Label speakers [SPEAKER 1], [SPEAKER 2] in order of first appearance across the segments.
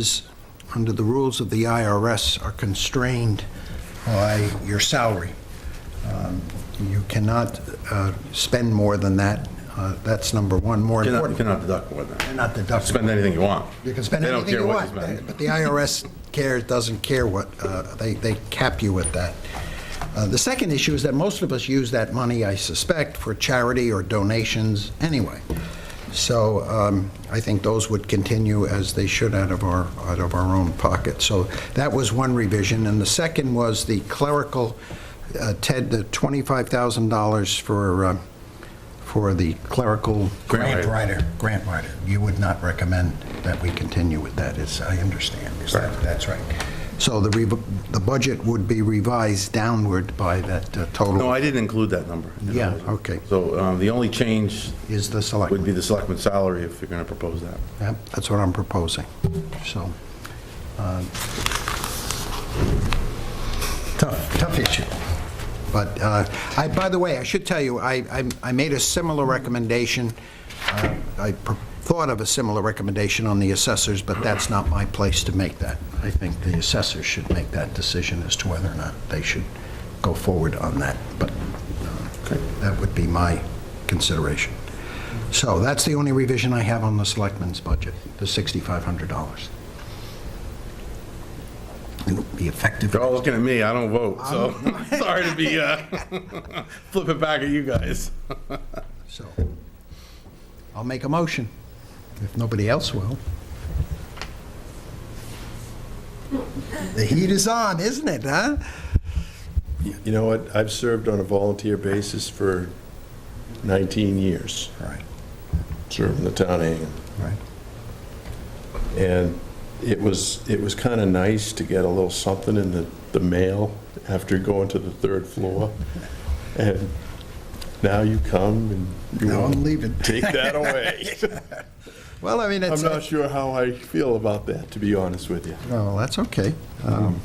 [SPEAKER 1] is, under the rules of the IRS, are constrained by your salary. Um, You cannot uh, spend more than that. Uh, That's number one, more
[SPEAKER 2] You cannot- you
[SPEAKER 1] important.
[SPEAKER 2] cannot deduct more than that.
[SPEAKER 1] Cannot deduct.
[SPEAKER 2] Spend anything you want.
[SPEAKER 1] You can spend
[SPEAKER 2] They don't
[SPEAKER 1] anything
[SPEAKER 2] care
[SPEAKER 1] you
[SPEAKER 2] what
[SPEAKER 1] want,
[SPEAKER 2] you spend.
[SPEAKER 1] but the IRS care, doesn't care what, uh, they, they cap you at that. Uh, The second issue is that most of us use that money, I suspect, for charity or donations anyway. So um, I think those would continue as they should out of our, out of our own pocket. So that was one revision, and the second was the clerical, uh, Ted, the $25,000 for, uh, for the clerical
[SPEAKER 2] Grant
[SPEAKER 1] grant writer, grant writer. You would not recommend that we continue with that, is, I understand, is that, that's right. So the, rev- the budget would be revised downward by that uh,
[SPEAKER 2] No,
[SPEAKER 1] total,
[SPEAKER 2] I didn't include that number.
[SPEAKER 1] Yeah, okay.
[SPEAKER 2] So um, the only change
[SPEAKER 1] is the
[SPEAKER 2] would be
[SPEAKER 1] selectmen.
[SPEAKER 2] the selectman's salary if you're going to propose that.
[SPEAKER 1] Yep, That's what I'm proposing, so. uh, Tough, tough issue. But uh, I, by the way, I should tell you, I, I- I made a similar recommendation. Uh, I pr- thought of a similar recommendation on the assessors, but that's not my place to make that. I think the assessors should make that decision as to whether or not they should go forward on that. But uh, that would be my consideration. So that's the only revision I have on the selectmen's budget, the $6,500. It'll be effective.
[SPEAKER 2] They're all looking at me, I don't vote, so
[SPEAKER 1] Um,
[SPEAKER 2] sorry to be uh, flipping back at you guys.
[SPEAKER 1] So I'll make a motion, if nobody else will. The heat is on, isn't it, huh?
[SPEAKER 3] You know what, I've served on a volunteer basis for 19 years,
[SPEAKER 1] Right,
[SPEAKER 3] serving the town of Hingham.
[SPEAKER 1] right.
[SPEAKER 3] And it was, it was kind of nice to get a little something in the, the mail after going to the third floor. And now you come and you
[SPEAKER 1] Now I'm
[SPEAKER 3] want to
[SPEAKER 1] leaving.
[SPEAKER 3] take that away.
[SPEAKER 1] Well, I mean,
[SPEAKER 3] I'm
[SPEAKER 1] it's,
[SPEAKER 3] not sure how I feel about that, to be honest with you.
[SPEAKER 1] no, that's okay. Um,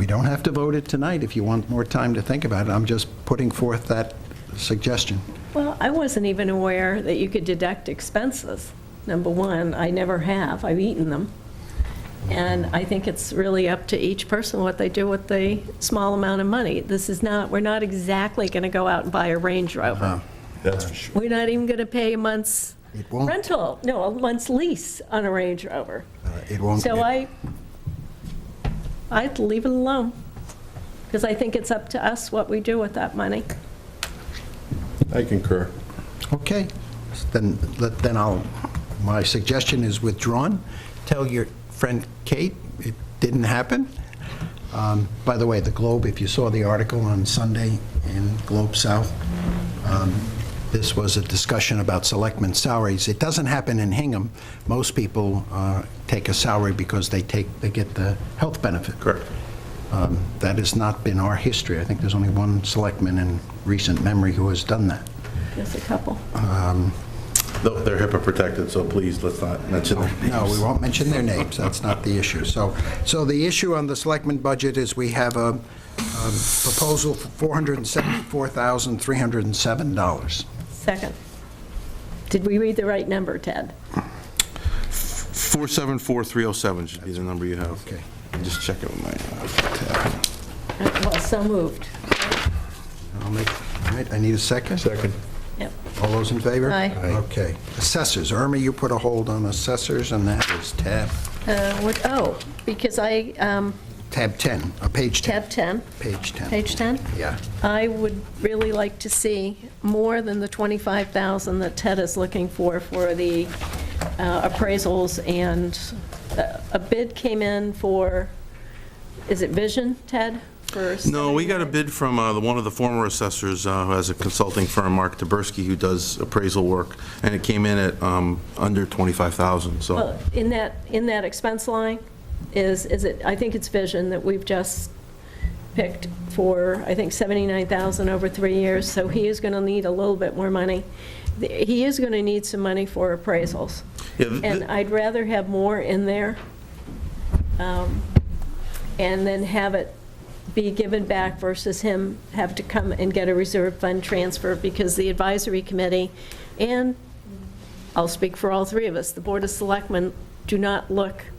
[SPEAKER 1] We don't have to vote it tonight if you want more time to think about it. I'm just putting forth that suggestion.
[SPEAKER 4] Well, I wasn't even aware that you could deduct expenses. Number one, I never have, I've eaten them. And I think it's really up to each person what they do with the small amount of money. This is not, we're not exactly going to go out and buy a Range Rover.
[SPEAKER 1] Uh-huh.
[SPEAKER 3] That's for sure.
[SPEAKER 4] We're not even going to pay a month's
[SPEAKER 1] It won't-
[SPEAKER 4] rental, no, a month's lease on a Range Rover.
[SPEAKER 1] Uh, It won't,
[SPEAKER 4] So I, I'd leave it alone, because I think it's up to us what we do with that money.
[SPEAKER 3] I concur.
[SPEAKER 1] okay. Then, let- then I'll, my suggestion is withdrawn. Tell your friend Kate it didn't happen. Um, By the way, the Globe, if you saw the article on Sunday in Globe South, um, this was a discussion about selectmen's salaries. It doesn't happen in Hingham. Most people uh, take a salary because they take, they get the health benefit.
[SPEAKER 2] Correct.
[SPEAKER 1] Um, That has not been our history. I think there's only one selectman in recent memory who has done that.
[SPEAKER 4] Just a couple.
[SPEAKER 2] Though They're HIPAA protected, so please, let's not mention their names.
[SPEAKER 1] No, we won't mention their names. That's not the issue. So, so the issue on the selectmen budget is we have a um, proposal for $474,307.
[SPEAKER 4] Second. Did we read the right number, Ted?
[SPEAKER 2] 474307 should be the number you have.
[SPEAKER 1] Okay.
[SPEAKER 2] Just check it with my uh, tab.
[SPEAKER 4] Well, so moved.
[SPEAKER 1] I'll make, all right, I need a second.
[SPEAKER 3] Second.
[SPEAKER 4] Yep.
[SPEAKER 1] All those in favor?
[SPEAKER 4] Aye. Aye.
[SPEAKER 1] Okay. Assessors, Irma, you put a hold on assessors, and that is tab,
[SPEAKER 4] Uh, What, oh, because I, um,
[SPEAKER 1] tab 10, uh, page 10.
[SPEAKER 4] tab 10,
[SPEAKER 1] Page 10.
[SPEAKER 4] page 10,
[SPEAKER 1] Yeah.
[SPEAKER 4] I would really like to see more than the 25,000 that Ted is looking for, for the uh, appraisals, and uh, a bid came in for, is it Vision, Ted? for
[SPEAKER 2] No, we got a bid from uh, the- one of the former assessors, uh, who has a consulting firm, Mark Taberski, who does appraisal work, and it came in at um, under 25,000, so.
[SPEAKER 4] Well, In that, in that expense line is, is it, I think it's Vision that we've just picked for, I think, 79,000 over three years, so he is going to need a little bit more money. The- He is going to need some money for appraisals,
[SPEAKER 2] Yeah, th-
[SPEAKER 4] and I'd rather have more in there um, and then have it be given back versus him have to come and get a reserve fund transfer because the advisory committee and I'll speak for all three of us, the Board of Selectmen do not look